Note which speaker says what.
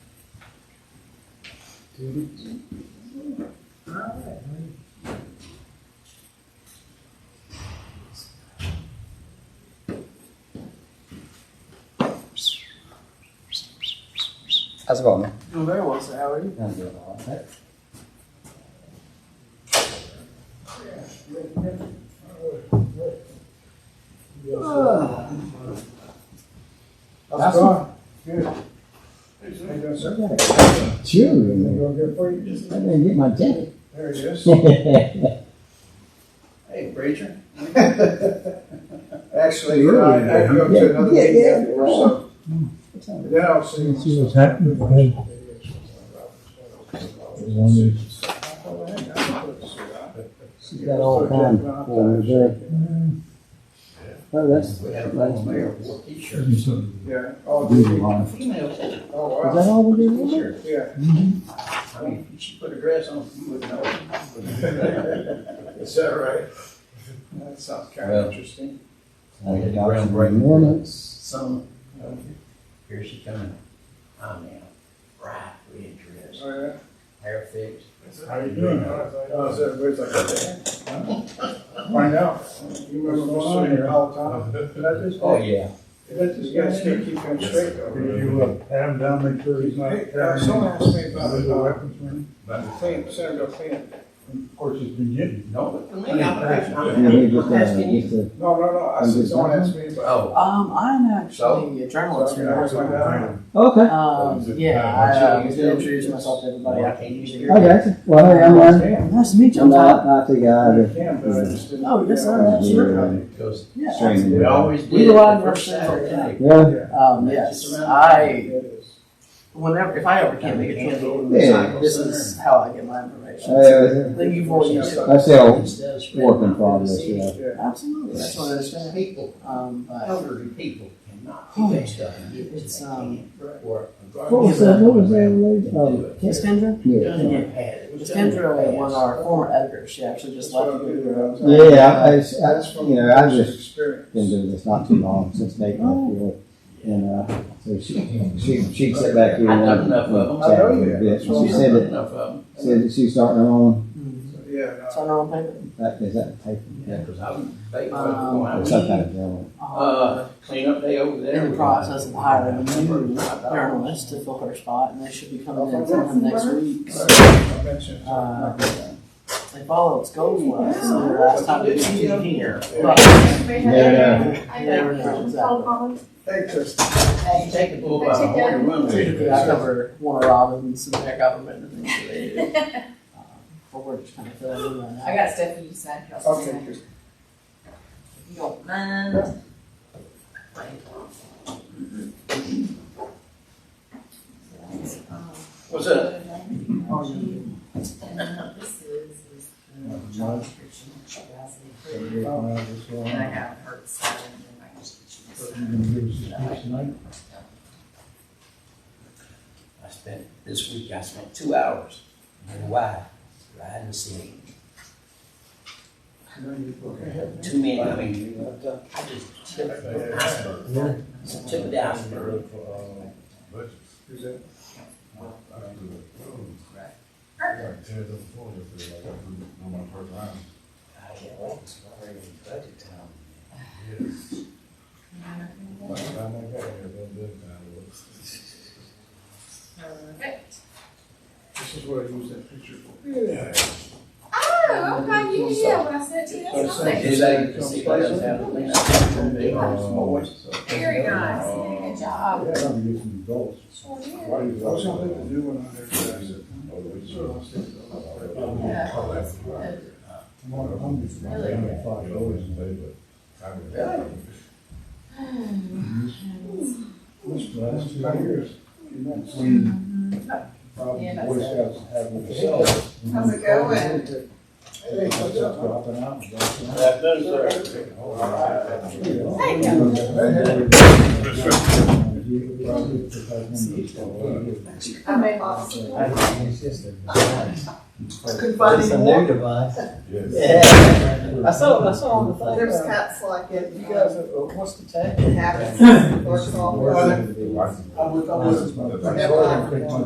Speaker 1: How's it going, man?
Speaker 2: Oh, very well, sir. How are you?
Speaker 1: I'm doing all right.
Speaker 2: How's it going? Good. How you doing, sir?
Speaker 1: Cheery in
Speaker 2: You
Speaker 1: there.
Speaker 2: doing good for you?
Speaker 1: I didn't get my jacket.
Speaker 2: There it is.
Speaker 3: Hey, Brazier.
Speaker 2: Actually, uh, I had to go
Speaker 1: Yeah,
Speaker 2: to another
Speaker 1: yeah,
Speaker 2: meeting
Speaker 1: yeah.
Speaker 2: afterwards, so. Then I'll see.
Speaker 4: See what's happening. Okay.
Speaker 2: Oh,
Speaker 1: She's got all kinds of forms there. Oh, that's,
Speaker 3: We had a vice
Speaker 1: that's me.
Speaker 3: mayor wore t-shirts.
Speaker 4: Give me some.
Speaker 2: Yeah. Oh,
Speaker 1: Is
Speaker 2: dude.
Speaker 3: Females had
Speaker 2: Oh,
Speaker 1: Mm-hmm. that
Speaker 2: wow.
Speaker 1: all we do? Wilbur?
Speaker 3: t-shirts.
Speaker 2: Yeah.
Speaker 3: I mean, if she put a dress on, you would know.
Speaker 2: Is that right? That sounds kind
Speaker 3: Well.
Speaker 2: of interesting.
Speaker 1: I
Speaker 3: We had
Speaker 1: got
Speaker 3: the ground
Speaker 1: some
Speaker 3: breaking.
Speaker 1: Minutes.
Speaker 3: Some, uh, here she coming. I'm now bright red dress,
Speaker 2: Oh, yeah.
Speaker 3: hair fixed.
Speaker 2: How you doing? Oh, is everybody's like, okay. Find out. You remember what's on here all the time. Did I just,
Speaker 3: Oh, yeah.
Speaker 2: did I just, you guys keep him straight though?
Speaker 4: You uh, have him down, make sure he's not.
Speaker 2: Hey, uh, someone asked me about
Speaker 4: There's
Speaker 2: it,
Speaker 4: a
Speaker 2: uh,
Speaker 4: weapons man.
Speaker 2: clean, Senator Clean.
Speaker 4: Of course, he's been getting.
Speaker 3: No, but for me, Oh, I'm
Speaker 1: Yeah, he just,
Speaker 3: I'm
Speaker 1: uh,
Speaker 3: asking you.
Speaker 1: just, uh,
Speaker 2: No, no, no, I said, someone asked me about.
Speaker 3: Oh,
Speaker 5: Um, I'm
Speaker 3: So?
Speaker 5: actually a journalist.
Speaker 2: Okay, I was like, uh,
Speaker 1: Okay,
Speaker 5: Um, yeah, I uh, was gonna introduce myself to everybody. I can't usually.
Speaker 1: I got you. Well, hey, I'm Ryan.
Speaker 5: Nice to meet you.
Speaker 1: I'm
Speaker 5: I'm
Speaker 1: not,
Speaker 5: Todd.
Speaker 1: not the guy
Speaker 2: I
Speaker 1: that.
Speaker 2: can, but I just didn't.
Speaker 5: Oh, yes, sir,
Speaker 2: Yeah.
Speaker 1: absolutely.
Speaker 3: because
Speaker 5: Yeah.
Speaker 1: Strange.
Speaker 3: we always
Speaker 5: We
Speaker 3: did it
Speaker 5: rely
Speaker 3: the
Speaker 5: on
Speaker 3: first
Speaker 5: ourselves.
Speaker 3: Saturday.
Speaker 1: Yeah,
Speaker 5: Um, yes, I whenever if I ever can make it, to the
Speaker 1: Yeah.
Speaker 5: this is how I get my information.
Speaker 1: Hey,
Speaker 5: Then you've already used
Speaker 1: that's the old work in progress, yeah.
Speaker 5: Absolutely, that's what I understand.
Speaker 3: People,
Speaker 5: Um,
Speaker 2: Oh.
Speaker 5: but
Speaker 3: elderly people cannot do that stuff.
Speaker 5: It's, um,
Speaker 3: Or.
Speaker 1: Oh, What was that, what was that, lady? um,
Speaker 5: Miss Kendra,
Speaker 1: yeah.
Speaker 5: Miss Kendra was our former editor. She actually just left.
Speaker 1: Yeah, I, I, you know, I just been
Speaker 2: Experience.
Speaker 1: doing this not too long since Nathan left here. And uh, so she, she, she'd sit back here
Speaker 3: I've
Speaker 1: and,
Speaker 3: done enough of them.
Speaker 1: and chat a little
Speaker 2: I know you
Speaker 1: bit.
Speaker 2: have.
Speaker 1: She said that,
Speaker 3: Enough of
Speaker 1: said that she's starting her own,
Speaker 5: Mhm.
Speaker 2: Yeah,
Speaker 5: It's on her own paper.
Speaker 1: that, is that paper? Yeah.
Speaker 3: them, because I was, they,
Speaker 5: Um,
Speaker 1: Or
Speaker 3: was
Speaker 1: some
Speaker 3: going
Speaker 1: kind
Speaker 3: out.
Speaker 1: of journal.
Speaker 3: Uh, cleanup day over there.
Speaker 5: in the process of hiring a new
Speaker 3: Well,
Speaker 5: Uh, journalist to fill her spot, and they should be
Speaker 2: Oh,
Speaker 5: coming in sometime next week.
Speaker 2: no. I mentioned.
Speaker 5: Uh, They follow its goals well, so the last time they were here. but-
Speaker 1: Yeah.
Speaker 6: I
Speaker 5: Never know,
Speaker 6: know. Phone
Speaker 5: exactly.
Speaker 6: calls.
Speaker 2: Hey, Chris.
Speaker 3: You take the bull by the horn and run with it.
Speaker 5: I cover Warner Robins and their government and things that they do. Um, But we're just kind of filling in right now.
Speaker 7: I got stuff for you to sign. Y'all sign.
Speaker 2: Okay, Chris.
Speaker 7: You don't mind.
Speaker 3: What's up?
Speaker 7: And This is, is the job description that you guys have approved. And I have her sign and I just get you
Speaker 4: You
Speaker 7: to sign.
Speaker 4: gonna give us this piece tonight?
Speaker 3: I spent, this week I spent two hours in Hawaii riding the city. Too many, I mean, I just tipped the iceberg. Just Tipped the iceberg. I can't wait, it's already budget time.
Speaker 7: Perfect.
Speaker 2: This is what I use that picture for.
Speaker 7: Oh, okay, you did what I said to you. That's
Speaker 2: So
Speaker 7: nice.
Speaker 3: They say the city does have at least two big ones.
Speaker 7: Very nice. You did a good job.
Speaker 4: Yeah, I'm gonna get some adults.
Speaker 7: Sure did.
Speaker 4: Why you-
Speaker 2: I was gonna put the new one on there. but I said, sure, I'll stick it on.
Speaker 7: Yeah, that's good.
Speaker 4: I'm on- I'm just- I'm down at five dollars. This last two years, between probably
Speaker 7: Yeah,
Speaker 4: Boy
Speaker 7: that's
Speaker 4: Scouts have with themselves.
Speaker 7: How's it going?
Speaker 2: Hey, what's up?
Speaker 4: Dropping out.
Speaker 7: Hey, I made lots of.
Speaker 5: Couldn't find any more.
Speaker 1: device.
Speaker 5: I saw, I saw on the thing.
Speaker 6: There's cats like it.
Speaker 5: You guys, uh, what's the tag?
Speaker 6: It happens. Works all the time.
Speaker 2: I was, I was.
Speaker 6: Whatever.